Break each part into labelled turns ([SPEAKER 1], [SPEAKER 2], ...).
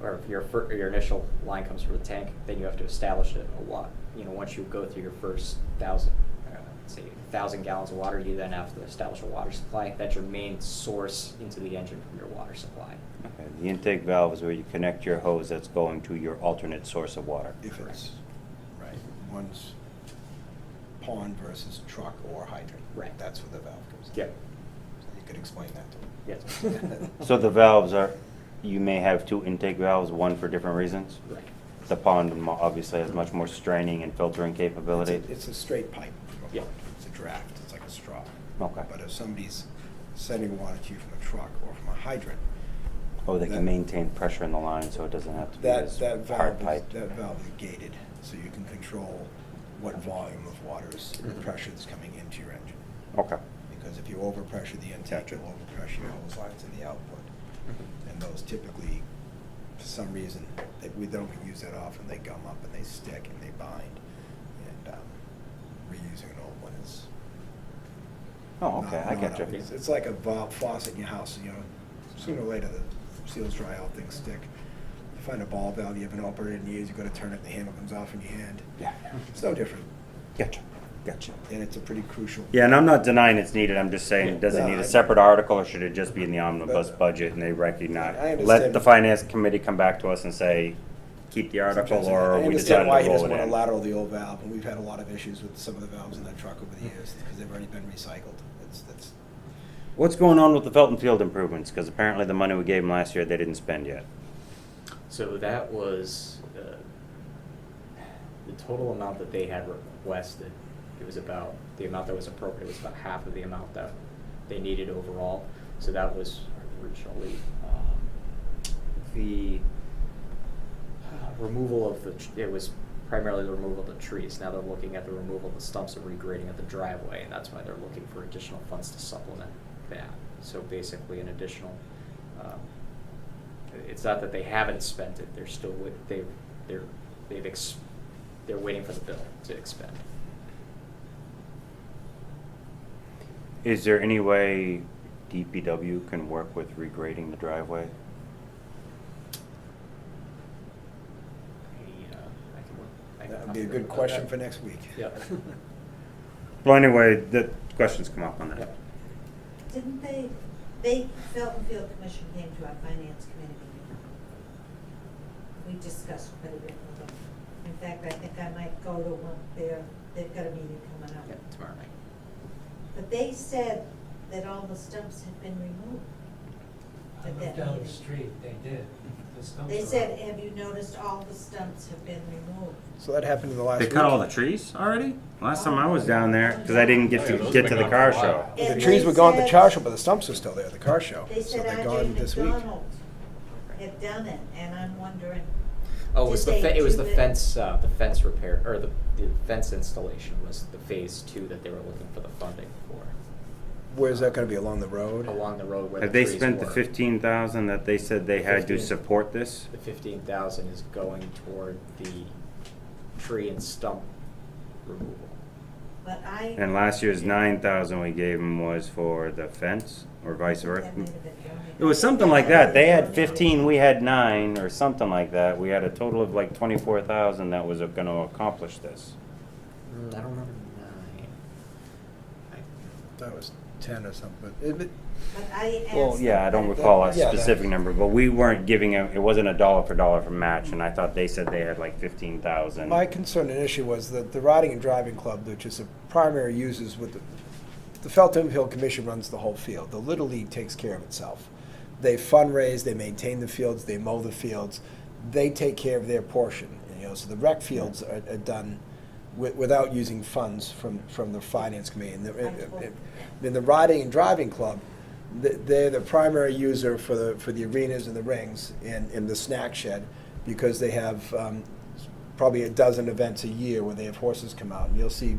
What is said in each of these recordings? [SPEAKER 1] or if your fir- your initial line comes from the tank, then you have to establish it a lot. You know, once you go through your first thousand, uh, say thousand gallons of water, you then have to establish a water supply. That's your main source into the engine from your water supply.
[SPEAKER 2] Okay, The intake valve is where you connect your hose that's going to your alternate source of water.
[SPEAKER 3] If it's, right, one's pond versus truck or hydrant.
[SPEAKER 1] Right.
[SPEAKER 3] That's where the valve comes in.
[SPEAKER 1] Yeah.
[SPEAKER 3] So you could explain that to
[SPEAKER 1] Yes.
[SPEAKER 3] them.
[SPEAKER 2] So the valves are, you may have two intake valves, one for different reasons?
[SPEAKER 1] Right.
[SPEAKER 2] The pond mo- obviously has much more straining and filtering
[SPEAKER 3] It's
[SPEAKER 2] capability.
[SPEAKER 3] a- It's a straight pipe. from a
[SPEAKER 1] Yeah.
[SPEAKER 3] pond. It's a draft, it's like a straw.
[SPEAKER 2] Okay.
[SPEAKER 3] But if somebody's sending water to you from a truck or from a hydrant,
[SPEAKER 2] Oh, they
[SPEAKER 3] that-
[SPEAKER 2] can maintain pressure in the line, so it doesn't have to be
[SPEAKER 3] that,
[SPEAKER 2] as hard
[SPEAKER 3] that valve, is-
[SPEAKER 2] piped.
[SPEAKER 3] that valve is gated, so you can control what volume of water is, the
[SPEAKER 1] Mhm.
[SPEAKER 3] pressure that's coming into your engine.
[SPEAKER 2] Okay,
[SPEAKER 3] Because if you overpressure the intake, you'll overpressure your hose lines and the output.
[SPEAKER 2] Mm-hmm.
[SPEAKER 3] And those typically, for some reason, they, we don't use that often, they gum up and they stick and they bind. And, um, reusing an old one is.
[SPEAKER 2] oh, okay,
[SPEAKER 3] not-
[SPEAKER 2] I
[SPEAKER 3] not
[SPEAKER 2] get
[SPEAKER 3] up-
[SPEAKER 2] you.
[SPEAKER 3] It's, it's like a valve faucet in your house, you know, sooner or later, the seals dry out, things stick. You find a ball valve you haven't operated in years, you gotta turn it, the handle comes off in your hand.
[SPEAKER 2] Yeah,
[SPEAKER 3] It's no different,
[SPEAKER 2] gotcha, gotcha.
[SPEAKER 3] and it's a pretty crucial.
[SPEAKER 2] Yeah, and I'm not denying it's needed, I'm just saying, does it
[SPEAKER 3] No,
[SPEAKER 2] need
[SPEAKER 3] I-
[SPEAKER 2] a separate article, or should it just be in the omnibus
[SPEAKER 3] But-
[SPEAKER 2] budget and they
[SPEAKER 3] I
[SPEAKER 2] recognize? Let
[SPEAKER 3] understand.
[SPEAKER 2] the finance committee come back to us and say, keep the article,
[SPEAKER 3] Sometimes I-
[SPEAKER 2] or
[SPEAKER 3] I
[SPEAKER 2] we
[SPEAKER 3] understand
[SPEAKER 2] decided
[SPEAKER 3] why he
[SPEAKER 2] to roll
[SPEAKER 3] doesn't
[SPEAKER 2] it
[SPEAKER 3] want to
[SPEAKER 2] in.
[SPEAKER 3] lateral the old valve, and we've had a lot of issues with some of the valves in that truck over the years, because they've already been recycled. That's, that's,
[SPEAKER 2] What's going on with the Felton Field improvements? Because apparently the money we gave them last year, they didn't spend yet.
[SPEAKER 1] So that was uh, the total amount that they had requested. It was about the amount that was appropriate was about half of the amount that they needed overall. So that was originally um, the uh, removal of the. tr- It was primarily the removal of the trees. Now they're looking at the removal of the stumps and regrading of the driveway, and that's why they're looking for additional funds to supplement that. So basically, an additional. Um, it's not that they haven't spent it, they're still, wi- they, they're, they've ex, they're waiting for the bill to expend.
[SPEAKER 2] Is there any way DPW can work with regrading the driveway?
[SPEAKER 1] I, uh, I can work- I can
[SPEAKER 3] that would
[SPEAKER 1] talk
[SPEAKER 3] be a
[SPEAKER 1] to them
[SPEAKER 3] good
[SPEAKER 1] about
[SPEAKER 3] question
[SPEAKER 1] that.
[SPEAKER 3] for next week.
[SPEAKER 1] Yeah.
[SPEAKER 2] Well, anyway, the questions come up on
[SPEAKER 1] Yeah.
[SPEAKER 2] that.
[SPEAKER 4] Didn't they, they, Felton Field Commission came to our finance committee meeting. We discussed quite a bit with them. In fact, I think I might go to one, there. they've got a meeting coming up.
[SPEAKER 1] Yeah, Tomorrow night.
[SPEAKER 4] But they said that all the stumps had been removed. at
[SPEAKER 5] I looked
[SPEAKER 4] that
[SPEAKER 5] down the
[SPEAKER 4] meeting.
[SPEAKER 5] street, they did. The stumps
[SPEAKER 4] They
[SPEAKER 5] are
[SPEAKER 4] said,
[SPEAKER 5] up.
[SPEAKER 4] have you noticed all the stumps have been removed?
[SPEAKER 3] So that happened in the last
[SPEAKER 2] They
[SPEAKER 3] week.
[SPEAKER 2] cut all the trees already? Last time I was down there, because I didn't get to
[SPEAKER 6] Yeah, those
[SPEAKER 2] get
[SPEAKER 6] been
[SPEAKER 2] to the
[SPEAKER 6] gone
[SPEAKER 2] car
[SPEAKER 6] for a
[SPEAKER 2] show.
[SPEAKER 6] while.
[SPEAKER 4] And
[SPEAKER 3] The
[SPEAKER 4] they
[SPEAKER 3] trees were gone at the car
[SPEAKER 4] said-
[SPEAKER 3] show, but the stumps are still there, at the car
[SPEAKER 2] Oh,
[SPEAKER 3] show.
[SPEAKER 4] They
[SPEAKER 3] So
[SPEAKER 4] said
[SPEAKER 3] they're
[SPEAKER 4] R.J.
[SPEAKER 3] gone this week.
[SPEAKER 4] McDonald had done it, and I'm wondering,
[SPEAKER 1] Oh, it was the,
[SPEAKER 4] Did they
[SPEAKER 1] fe- it was
[SPEAKER 4] do
[SPEAKER 1] the
[SPEAKER 4] the-
[SPEAKER 1] fence, uh, the fence repair, or the, the fence installation was the phase two that they were looking for the funding for,
[SPEAKER 3] Where's that gonna be, along the road?
[SPEAKER 1] along the road where the
[SPEAKER 2] Have they
[SPEAKER 1] trees were.
[SPEAKER 2] spent the fifteen thousand that they said they had to
[SPEAKER 1] 15.
[SPEAKER 2] support this?
[SPEAKER 1] The fifteen thousand is going toward the tree and stump removal.
[SPEAKER 4] but I.
[SPEAKER 2] And last year's nine thousand we gave them was for the fence, or vice versa?
[SPEAKER 4] That might have been donated.
[SPEAKER 2] It was something like that. They had fifteen, we had nine, or something like that. We had a total of like twenty-four thousand that was gonna accomplish this.
[SPEAKER 3] Hmm,
[SPEAKER 1] Mm, I don't remember nine. I
[SPEAKER 3] That was ten or something, but it- it-
[SPEAKER 4] But I asked.
[SPEAKER 2] Well, yeah, I don't
[SPEAKER 4] them-
[SPEAKER 2] recall a
[SPEAKER 3] Yeah, that-
[SPEAKER 2] specific number, but we weren't giving it, it wasn't a dollar for dollar for match, and I thought they said they had like fifteen thousand.
[SPEAKER 3] My concern and issue was that the Riding and Driving Club, which is the primary users with the, the Feltham Hill Commission runs the whole field. The Little League takes care of itself. They fundraise, they maintain the fields, they mow the fields, they take care of their portion. You know, so the rec fields are, are done wi- without using funds from, from the finance committee. And the, in the Riding and Driving Club, th- they're the primary user for the, for the arenas and the rings and, and the snack shed because they have um, probably a dozen events a year where they have horses come out, and you'll see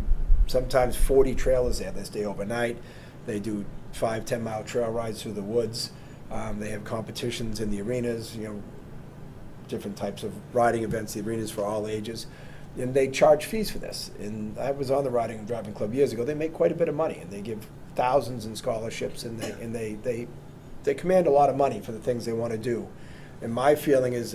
[SPEAKER 3] sometimes 40 trailers there. They stay overnight. They do five, 10 mile trail rides through the woods. Um, they have competitions in the arenas, you know, different types of riding events, the arenas for all ages. And they charge fees for this. And I was on the Riding and Driving Club years ago. They make quite a bit of money, and they give thousands in scholarships, and they, and they, they, they command a lot of money for the things they want to do. And my feeling is